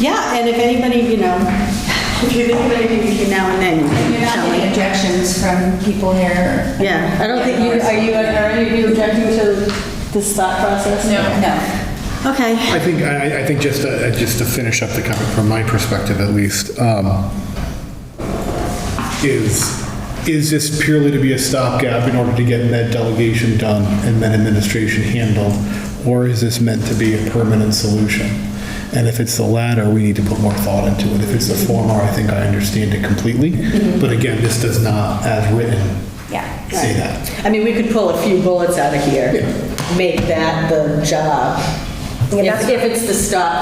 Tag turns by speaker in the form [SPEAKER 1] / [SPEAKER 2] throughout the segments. [SPEAKER 1] Yeah, and if anybody, you know, if you think of anything between now and then, you
[SPEAKER 2] You're
[SPEAKER 1] can
[SPEAKER 2] not
[SPEAKER 1] tell
[SPEAKER 2] getting
[SPEAKER 1] me.
[SPEAKER 2] objections from people here.
[SPEAKER 1] Yeah, I don't think you, are you, are any of you objecting to this thought process?
[SPEAKER 2] No.
[SPEAKER 1] Okay.
[SPEAKER 3] I think, I, I- I think just to, uh, just to finish up the comment from my perspective at least, um, is, is this purely to be a stopgap in order to get med delegation done and med administration handled? Or is this meant to be a permanent solution? And if it's the latter, we need to put more thought into it. If it's the former, I think I understand it completely. But again, this does not, as written,
[SPEAKER 2] Yeah.
[SPEAKER 3] say that.
[SPEAKER 1] I mean, we could pull a few bullets out of here, make that the job. If if it's the
[SPEAKER 4] That's kind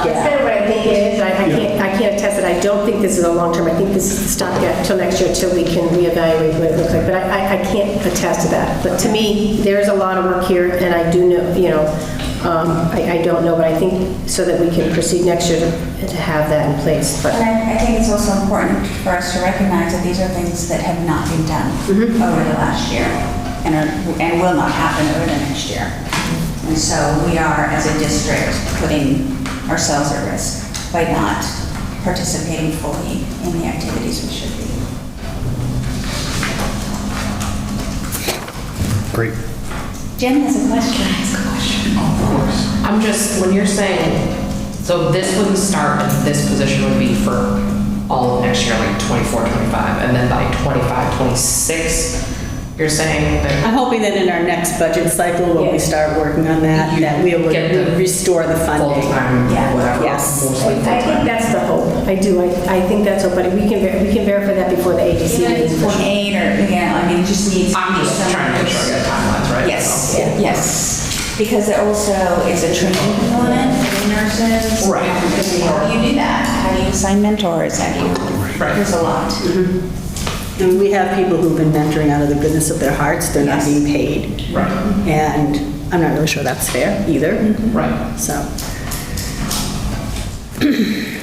[SPEAKER 1] stopgap.
[SPEAKER 4] of what I think it is, I I can't, I can't attest it, I don't think this is a long term, I think this is the stopgap till next year, till we can reevaluate what it looks like, but I, I- I can't attest to that. But to me, there is a lot of work here, and I do know, you know, um, I, I don't know, but I think so that we can proceed next year to to have that in place, but.
[SPEAKER 5] And I, I think it's also important for us to recognize that these are things that have not been done over the last year and are, and will not happen over the next year. And so we are, as a district, putting ourselves at risk by not participating fully in the activities we should be.
[SPEAKER 3] Great.
[SPEAKER 5] Jim has a question. Has a question.
[SPEAKER 6] I'm just, when you're saying, so this wouldn't start, this position would be for all of next year, like 24, 25, and then by 25, 26, you're saying that
[SPEAKER 1] I'm hoping that in our next budget cycle, when we start working on that, that we
[SPEAKER 6] Get the
[SPEAKER 1] will restore the funding.
[SPEAKER 6] full-time,
[SPEAKER 5] Yeah.
[SPEAKER 6] whatever,
[SPEAKER 1] Yes.
[SPEAKER 6] mostly
[SPEAKER 4] I think
[SPEAKER 6] full-time?
[SPEAKER 4] that's the hope, I do, I, I think that's hope, but we can, ver- we can verify that before the AGC
[SPEAKER 5] Even if
[SPEAKER 4] meeting.
[SPEAKER 5] it's
[SPEAKER 4] for sure.
[SPEAKER 5] twenty-eight or, yeah, I mean, it just needs.
[SPEAKER 6] I'm just trying to make sure I get timelines right.
[SPEAKER 5] Yes,
[SPEAKER 6] so.
[SPEAKER 5] yes. Because there also is a training component for the nurses.
[SPEAKER 6] Right.
[SPEAKER 5] How do you do that? How do you assign mentors? How do you,
[SPEAKER 6] Right.
[SPEAKER 5] there's a lot.
[SPEAKER 1] And we have people who've been mentoring out of the goodness of their hearts, they're not
[SPEAKER 5] Yes.
[SPEAKER 1] being paid.
[SPEAKER 6] Right,
[SPEAKER 1] And I'm not really sure that's fair either,
[SPEAKER 6] right.
[SPEAKER 1] so.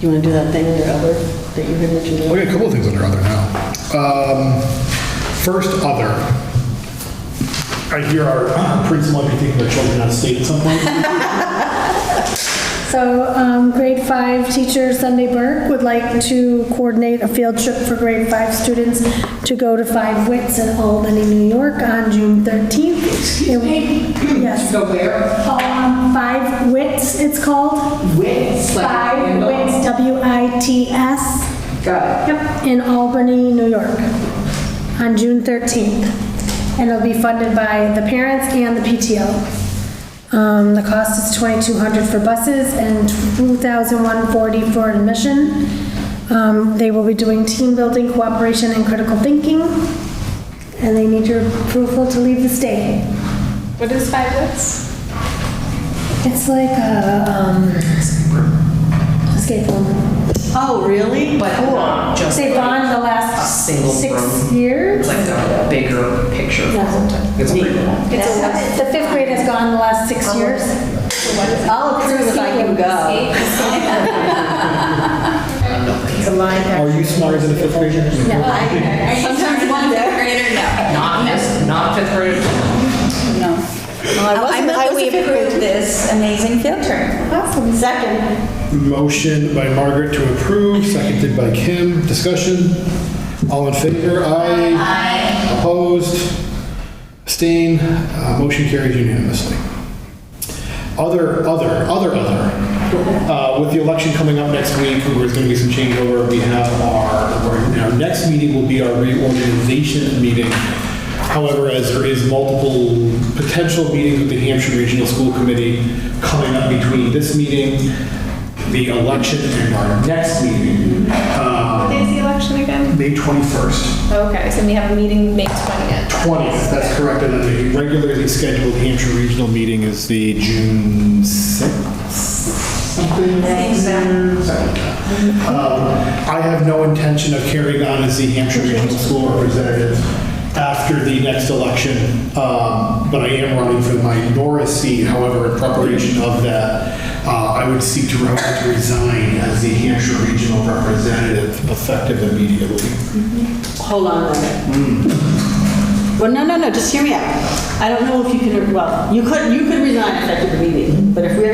[SPEAKER 1] You want to do that thing with your other, that you heard Richard do?
[SPEAKER 3] We got a couple of things under other now. Um, First, other. I hear our uh, prince might be taking their children out of state at some point.
[SPEAKER 7] So um, grade five teacher Sunday Burke would like to coordinate a field trip for grade five students to go to Five Wits in Albany, New York on June 13th. Excuse me? Yes. Go where? Five Wits, it's called. Wits? Five Wits, W-I-T-S. Got it. Yep, in Albany, New York on June 13th. And it'll be funded by the parents and the PTO. Um, the cost is twenty-two hundred for buses and two thousand one forty for admission. Um, they will be doing team building, cooperation, and critical thinking. And they need your approval to leave the state.
[SPEAKER 8] What is five lips?
[SPEAKER 7] It's like a, um, escape room.
[SPEAKER 1] Oh, really?
[SPEAKER 6] But not just
[SPEAKER 7] They've
[SPEAKER 6] like
[SPEAKER 7] gone the
[SPEAKER 6] a
[SPEAKER 7] last
[SPEAKER 6] single
[SPEAKER 7] six
[SPEAKER 6] room,
[SPEAKER 7] years.
[SPEAKER 6] like a bigger picture of
[SPEAKER 7] Yeah.
[SPEAKER 6] full-time. It's a big one.
[SPEAKER 7] It's a- The fifth grade has gone the last six years.
[SPEAKER 1] I'll approve if I can go.
[SPEAKER 3] Are you smarter than a fifth grader?
[SPEAKER 5] Sometimes one fifth grader, no.
[SPEAKER 6] Not this, not fifth grade.
[SPEAKER 5] No.
[SPEAKER 1] I
[SPEAKER 5] I
[SPEAKER 1] wasn't- I
[SPEAKER 5] move that
[SPEAKER 1] was
[SPEAKER 5] we
[SPEAKER 1] a fifth grader.
[SPEAKER 5] approve this amazing field trip.
[SPEAKER 7] Awesome.
[SPEAKER 1] Second.
[SPEAKER 3] Motion by Margaret to approve, seconded by Kim. Discussion? All in favor? Aye. Aye. Opposed? Abstain? Uh, Motion carries unanimously. Other, other, other, other. Uh, With the election coming up next week, there's going to be some changeover. We have our, our next meeting will be our reorganization meeting. However, as there is multiple potential meetings with the Hampshire Regional School Committee coming up between this meeting, the election, and our next meeting, uh,
[SPEAKER 8] Is the election again?
[SPEAKER 3] May 21st.
[SPEAKER 8] Okay, so we have a meeting May 20th.
[SPEAKER 3] 20th, that's correct, and then the regularly scheduled Hampshire Regional meeting is the June 6th? Something? Um, I have no intention of carrying on as the Hampshire Regional School Representative after the next election, um, but I am running for my Norris seat, however, in preparation of that, uh, I would seek to resign as the Hampshire Regional Representative effective immediately.
[SPEAKER 1] Hold on a minute. Well, no, no, no, just hear me out. I don't know if you can, well, you could, you could resign effective immediately, but if we're